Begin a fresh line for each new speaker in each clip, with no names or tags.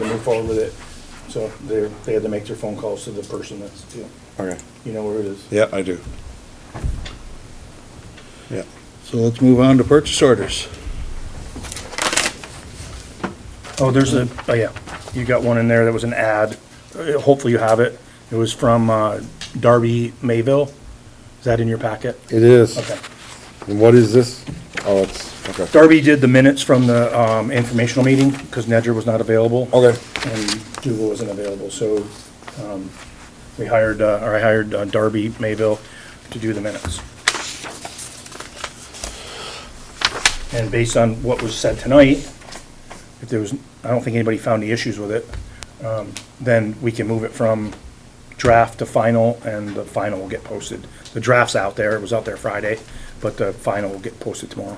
to move forward with it. So they're, they had to make their phone calls to the person that's, you know,
Okay.
you know where it is.
Yeah, I do. Yeah.
So let's move on to purchase orders.
Oh, there's a, oh yeah, you got one in there that was an ad. Uh, Hopefully you have it. It was from uh, Darby Mayville. Is that in your packet?
It is.
Okay.
And what is this? Oh, it's, okay.
Darby did the minutes from the um, informational meeting because Nedger was not
Oh,
available.
Okay.
And Duval wasn't available, so um, we hired, uh, or I hired uh, Darby Mayville to do the minutes. And based on what was said tonight, if there was, I don't think anybody found any issues with it, um, then we can move it from draft to final, and the final will get posted. The draft's out there, it was out there Friday, but the final will get posted tomorrow.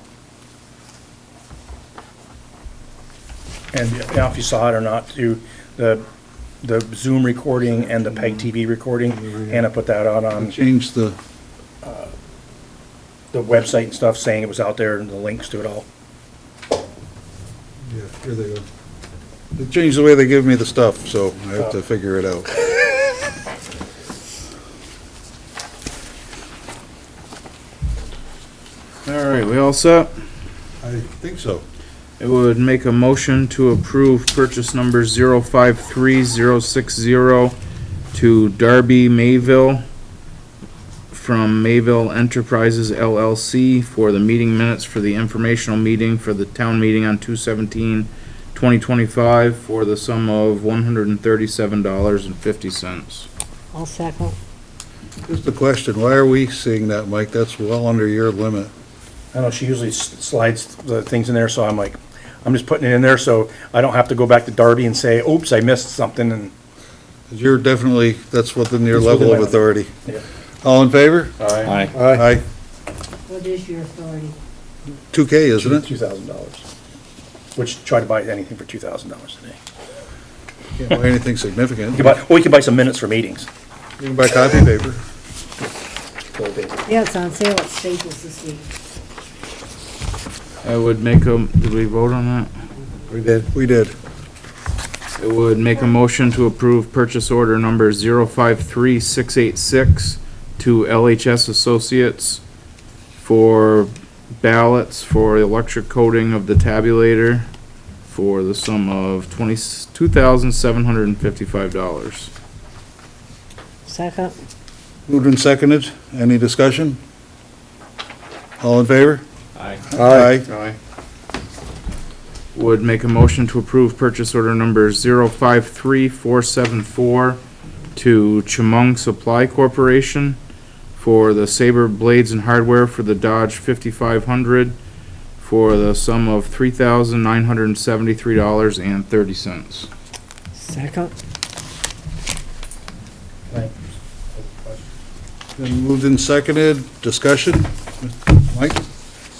And you know, if you saw it or not, too, the, the Zoom recording and the PEG TV recording, Anna put that out on
Change the,
the website and stuff, saying it was out there and the links to it all.
yeah, here they go. They changed the way they give me the stuff, so I have to figure it out.
All right, we all set?
I think so.
It would make a motion to approve purchase number zero five three zero six zero to Darby Mayville from Mayville Enterprises LLC for the meeting minutes for the informational meeting for the town meeting on 2025 for the sum of one hundred and thirty-seven dollars and fifty cents.
I'll second.
Just a question, why are we seeing that, Mike? That's well under your limit.
I don't know, she usually s- slides the things in there, so I'm like, I'm just putting it in there so I don't have to go back to Darby and say, oops, I missed something, and,
You're definitely, that's within your
It's within
level of
my-
authority.
yeah.
All in favor?
Aye.
Aye.
What is your authority?
Two K, isn't it?
Two thousand dollars. Which, try to buy anything for two thousand dollars today.
Can't buy anything significant.
You can buy, or you can buy some minutes for meetings.
You can buy copy paper.
So they-
Yeah, it's on sale at Staples this week.
I would make a, did we vote on that?
We did. We did.
It would make a motion to approve purchase order number 053686 to LHS Associates for ballots for electric coating of the tabulator for the sum of 20 $2,755.
Second.
Moved and seconded. Any discussion? All in favor?
Aye.
Aye.
Aye. Would make a motion to approve purchase order number 053474 to Chemung Supply Corporation for the Saber blades and hardware for the Dodge 5500 for the sum of $3,973.30.
Second.
Then moved and seconded. Discussion? Mike?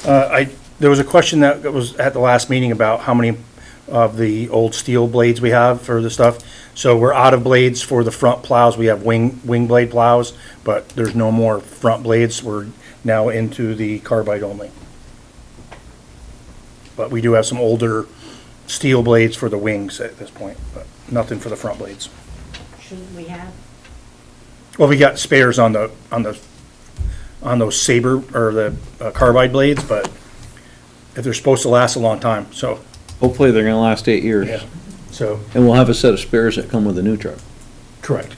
Uh, I, there was a question that was at the last meeting about how many of the old steel blades we have for the stuff. So we're out of blades for the front plows. We have wing, wing blade plows, but there's no more front blades. We're now into the carbide only. But we do have some older steel blades for the wings at this point, but nothing for the front blades.
Shouldn't we have?
Well, we got spares on the, on the, on those saber, or the uh, carbide blades, but if they're supposed to last a long time, so,
Hopefully, they're gonna last eight
yeah,
years,
so,
and we'll have a set of spares that come with the new truck.
correct.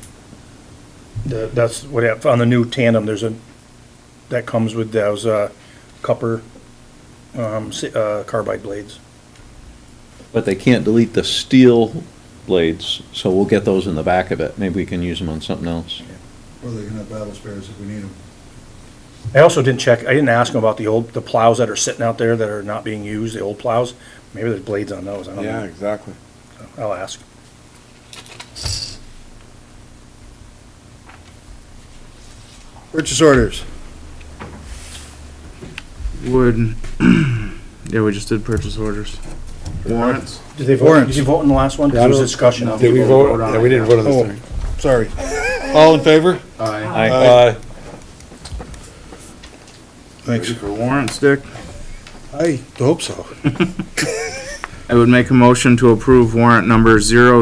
The, that's what, hap- on the new tandem, there's a, that comes with those, uh, copper, um, si- uh, carbide blades.
But they can't delete the steel blades, so we'll get those in the back of it. Maybe we can use them on something else.
Or they can have battle spares if we need them.
I also didn't check, I didn't ask them about the old, the plows that are sitting out there that are not being used, the old plows. Maybe there's blades on those, I don't
Yeah,
know.
exactly.
I'll ask.
Purchase orders.
Would, yeah, we just did purchase orders. Warrants?
Did they vote,
Warrants.
did you vote in the last one? 'Cause There was discussion.
Did we vote? Yeah, we didn't vote on this thing.
Oh, Sorry. All in favor?
Aye.
Aye.
Thanks.
For warrants, Dick?
I hope so.
I would make a motion to approve warrant number zero